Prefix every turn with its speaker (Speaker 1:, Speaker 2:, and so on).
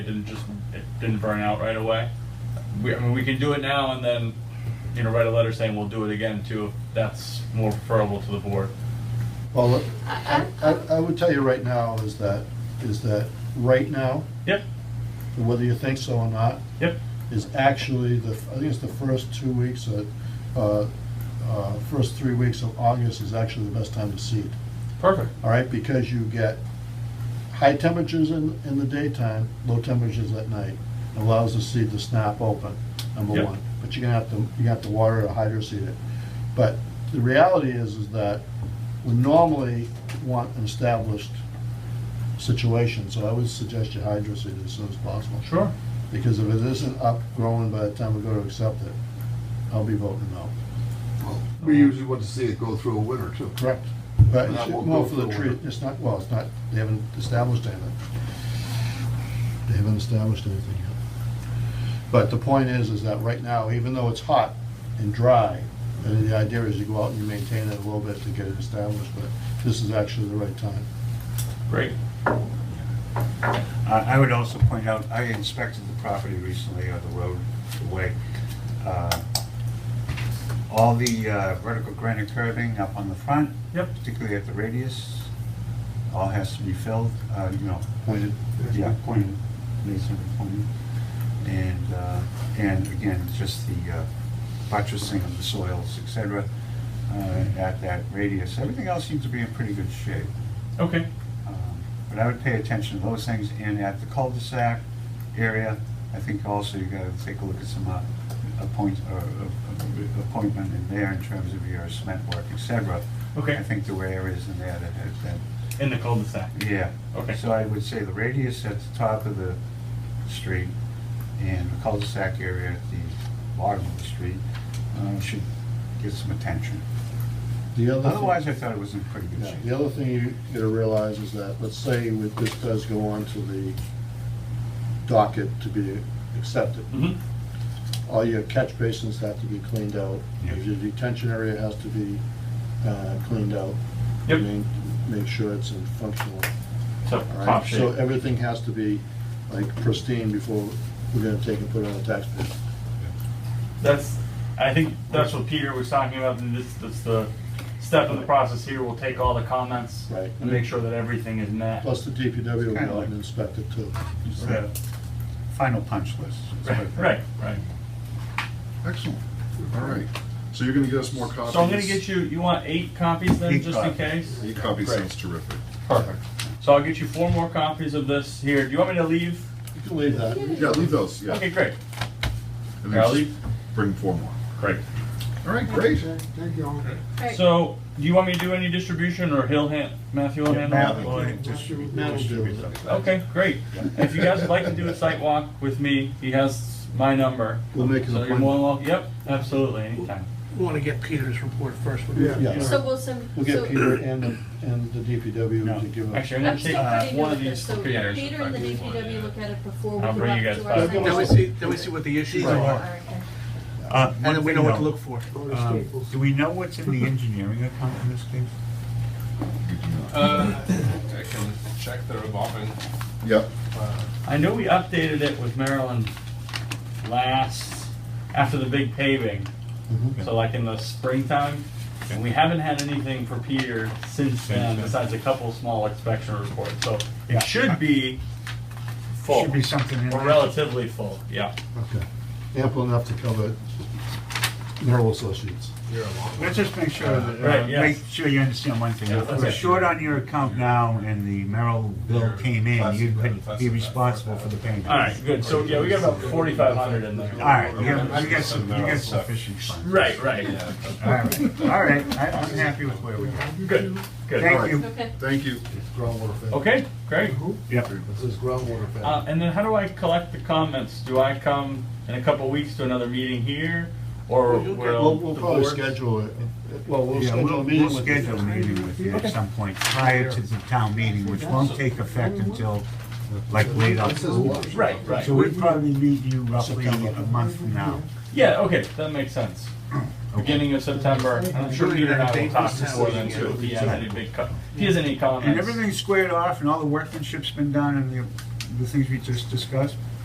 Speaker 1: It didn't just, it didn't burn out right away. We, I mean, we can do it now and then, you know, write a letter saying we'll do it again too, if that's more preferable to the board.
Speaker 2: Well,
Speaker 3: I-
Speaker 2: I, I- I would tell you right now is that, is that right now,
Speaker 1: Yep,
Speaker 2: whether you think so or not,
Speaker 1: yep,
Speaker 2: is actually the, I think it's the first two weeks, of, uh, uh, first three weeks of August is actually the best time to seed.
Speaker 1: perfect.
Speaker 2: All right, because you get high temperatures in, in the daytime, low temperatures at night. It Allows the seed to snap open, number
Speaker 1: Yep.
Speaker 2: one. But you're gonna have to, you're gonna have to water it or hydro seed it. But the reality is, is that we normally want an established situation, so I would suggest you hydro seed it as soon as possible.
Speaker 1: Sure.
Speaker 2: Because if it isn't up growing by the time we go to accept it, I'll be voting no.
Speaker 4: Well, We usually want to see it go through a winter too.
Speaker 2: Correct. But
Speaker 4: And
Speaker 2: it's
Speaker 4: that won't
Speaker 2: more
Speaker 4: go
Speaker 2: for the
Speaker 4: forward.
Speaker 2: tree, it's not, well, it's not, they haven't established anything. They haven't established anything yet. But the point is, is that right now, even though it's hot and dry, and the idea is you go out and you maintain it a little bit to get it established, but this is actually the right time.
Speaker 1: Great.
Speaker 5: I I would also point out, I inspected the property recently on the road, the way. uh, All the uh, vertical granite curving up on the front.
Speaker 1: Yep.
Speaker 5: Particularly at the radius, all has to be filled, uh, you know, pointed,
Speaker 4: Yeah.
Speaker 5: yeah, pointed, masonry pointed. And, uh, and again, just the uh, buttressing of the soils, et cetera, uh, at that radius. Everything else seems to be in pretty good shape.
Speaker 1: Okay,
Speaker 5: Um, But I would pay attention to those things, and at the cul-de-sac area, I think also you gotta take a look at some uh, appoint, or, uh, appointment in there in terms of your cement work, et cetera. I
Speaker 1: okay,
Speaker 5: think there were areas in there that had been,
Speaker 1: in the cul-de-sac.
Speaker 5: yeah.
Speaker 1: Okay.
Speaker 5: So I would say the radius at the top of the street and the cul-de-sac area at the bottom of the street uh, should get some attention.
Speaker 2: The other thing-
Speaker 5: Otherwise, I thought it was in pretty good
Speaker 2: Yeah,
Speaker 5: shape.
Speaker 2: The other thing you gotta realize is that, let's say with- this does go on to the docket to be accepted.
Speaker 1: Mm-hmm,
Speaker 2: all your catch basins have to be cleaned out,
Speaker 5: Yeah.
Speaker 2: your detention area has to be uh, cleaned out.
Speaker 1: Yep.
Speaker 2: Make- Make sure it's in functional,
Speaker 1: so
Speaker 2: all right?
Speaker 1: top
Speaker 2: So uh,
Speaker 1: shape.
Speaker 2: everything has to be like pristine before we're gonna take and put it on the taxpayer.
Speaker 1: That's, I think that's what Peter was talking about, and this, that's the step in the process here, we'll take all the comments.
Speaker 2: Right.
Speaker 1: And make sure that everything is met.
Speaker 2: Plus the DPW will
Speaker 5: Kinda
Speaker 2: go out
Speaker 5: like-
Speaker 2: and inspect it too.
Speaker 5: It's the Final punch list.
Speaker 1: Right, right, right.
Speaker 6: Excellent. All right. So you're gonna get us more copies?
Speaker 1: So I'm gonna get you, you want eight copies then,
Speaker 5: Eight
Speaker 1: just in
Speaker 5: copies.
Speaker 1: case?
Speaker 6: Eight copies
Speaker 1: Great.
Speaker 6: sounds terrific.
Speaker 1: Perfect. So I'll get you four more copies of this here. Do you want me to leave?
Speaker 2: You can leave that.
Speaker 6: Yeah, leave those, yeah.
Speaker 1: Okay, great.
Speaker 6: And
Speaker 1: I'll
Speaker 6: then just
Speaker 1: leave.
Speaker 6: bring four more.
Speaker 1: Great.
Speaker 6: All right, great.
Speaker 4: Thank you. all.
Speaker 3: Right.
Speaker 1: So, do you want me to do any distribution or he'll hand, Matthew will
Speaker 5: Yeah,
Speaker 1: handle
Speaker 5: Matthew.
Speaker 1: it? Or- Okay, great. If you guys would like to do a site walk with me, he has my number.
Speaker 2: We'll make an
Speaker 1: So you're more
Speaker 2: appointment.
Speaker 1: than welcome, yep, absolutely, anytime.
Speaker 7: We want to get Peter's report first.
Speaker 4: Yeah.
Speaker 2: Yeah.
Speaker 3: So we'll send.
Speaker 2: We'll
Speaker 3: so-
Speaker 2: get Peter and, the- and the DPW to
Speaker 5: No.
Speaker 2: give us.
Speaker 1: Actually, I'm
Speaker 3: I'm
Speaker 1: gonna
Speaker 3: still
Speaker 1: take uh,
Speaker 3: pretty new
Speaker 1: one of
Speaker 3: with this,
Speaker 1: these
Speaker 3: so
Speaker 1: to
Speaker 3: Peter
Speaker 1: Peter.
Speaker 3: and the DPW look at it before we
Speaker 1: I'll
Speaker 3: go
Speaker 1: bring
Speaker 3: out
Speaker 1: you guys
Speaker 3: to
Speaker 1: back.
Speaker 3: our. site
Speaker 7: Then we
Speaker 3: walk.
Speaker 7: see, then we see what the issues
Speaker 3: Alright,
Speaker 7: are,
Speaker 3: okay.
Speaker 5: Uh,
Speaker 7: and then we know what to
Speaker 5: one
Speaker 7: look
Speaker 5: thing
Speaker 7: for.
Speaker 5: though, um, Do we know what's in the engineering account in this case?
Speaker 8: Uh, I can check the revolving.
Speaker 6: Yep.
Speaker 8: uh,
Speaker 1: I know we updated it with Maryland last, after the big paving,
Speaker 5: Mm-hmm.
Speaker 2: Mhm.
Speaker 1: so like in the springtime. And we haven't had anything for Peter since then, besides a couple small inspection reports, so
Speaker 5: Yeah.
Speaker 1: it should be full.
Speaker 5: Should be something in
Speaker 1: Or
Speaker 5: there.
Speaker 1: relatively full, yeah.
Speaker 2: Okay. Ample enough to cover Merrill Associates.
Speaker 5: Let's just make sure, that,
Speaker 1: Right,
Speaker 5: uh,
Speaker 1: yes.
Speaker 5: make sure you understand one thing.
Speaker 1: Yeah,
Speaker 5: If
Speaker 1: that's
Speaker 5: we're
Speaker 1: it.
Speaker 5: short on your account now and the Merrill bill
Speaker 8: Your
Speaker 5: came in,
Speaker 8: plastic
Speaker 5: you'd
Speaker 8: bag,
Speaker 5: be- be
Speaker 8: plastic bag,
Speaker 5: responsible for the
Speaker 8: plastic
Speaker 5: payment.
Speaker 1: All right, good, so, yeah, we got about forty-five hundred in there.
Speaker 5: All right, you got, you got some- you got sufficient funds.
Speaker 1: Right, right,
Speaker 8: Yeah.
Speaker 5: All right, all right, I- I'm happy with where we are.
Speaker 1: good, good.
Speaker 5: Thank you.
Speaker 3: Okay.
Speaker 6: Thank you.
Speaker 4: Groundwater fence.
Speaker 1: Okay, great.
Speaker 5: Yep.
Speaker 4: This is groundwater fence.
Speaker 1: Uh, and then how do I collect the comments? Do I come in a couple weeks to another meeting here? Or
Speaker 7: Well, you'll get-
Speaker 1: will
Speaker 2: We'll, we'll
Speaker 1: the
Speaker 2: probably
Speaker 1: board-
Speaker 2: schedule it. Well, we'll
Speaker 5: Yeah,
Speaker 2: schedule
Speaker 5: we'll,
Speaker 2: a meeting
Speaker 5: we'll
Speaker 2: with you.
Speaker 5: schedule a meeting with you at some point prior to the town meeting, which won't take effect until like late
Speaker 4: This is
Speaker 5: October.
Speaker 4: water.
Speaker 1: Right, right.
Speaker 5: So we'd probably meet you roughly a month from now.
Speaker 1: Yeah, okay, that makes sense. Beginning of September, and I'm sure Peter and I will talk before then too, if he has any big, co- if he has any
Speaker 5: And
Speaker 1: comments.
Speaker 5: everything's squared off and all the workmanship's been done and you, the things we just discussed,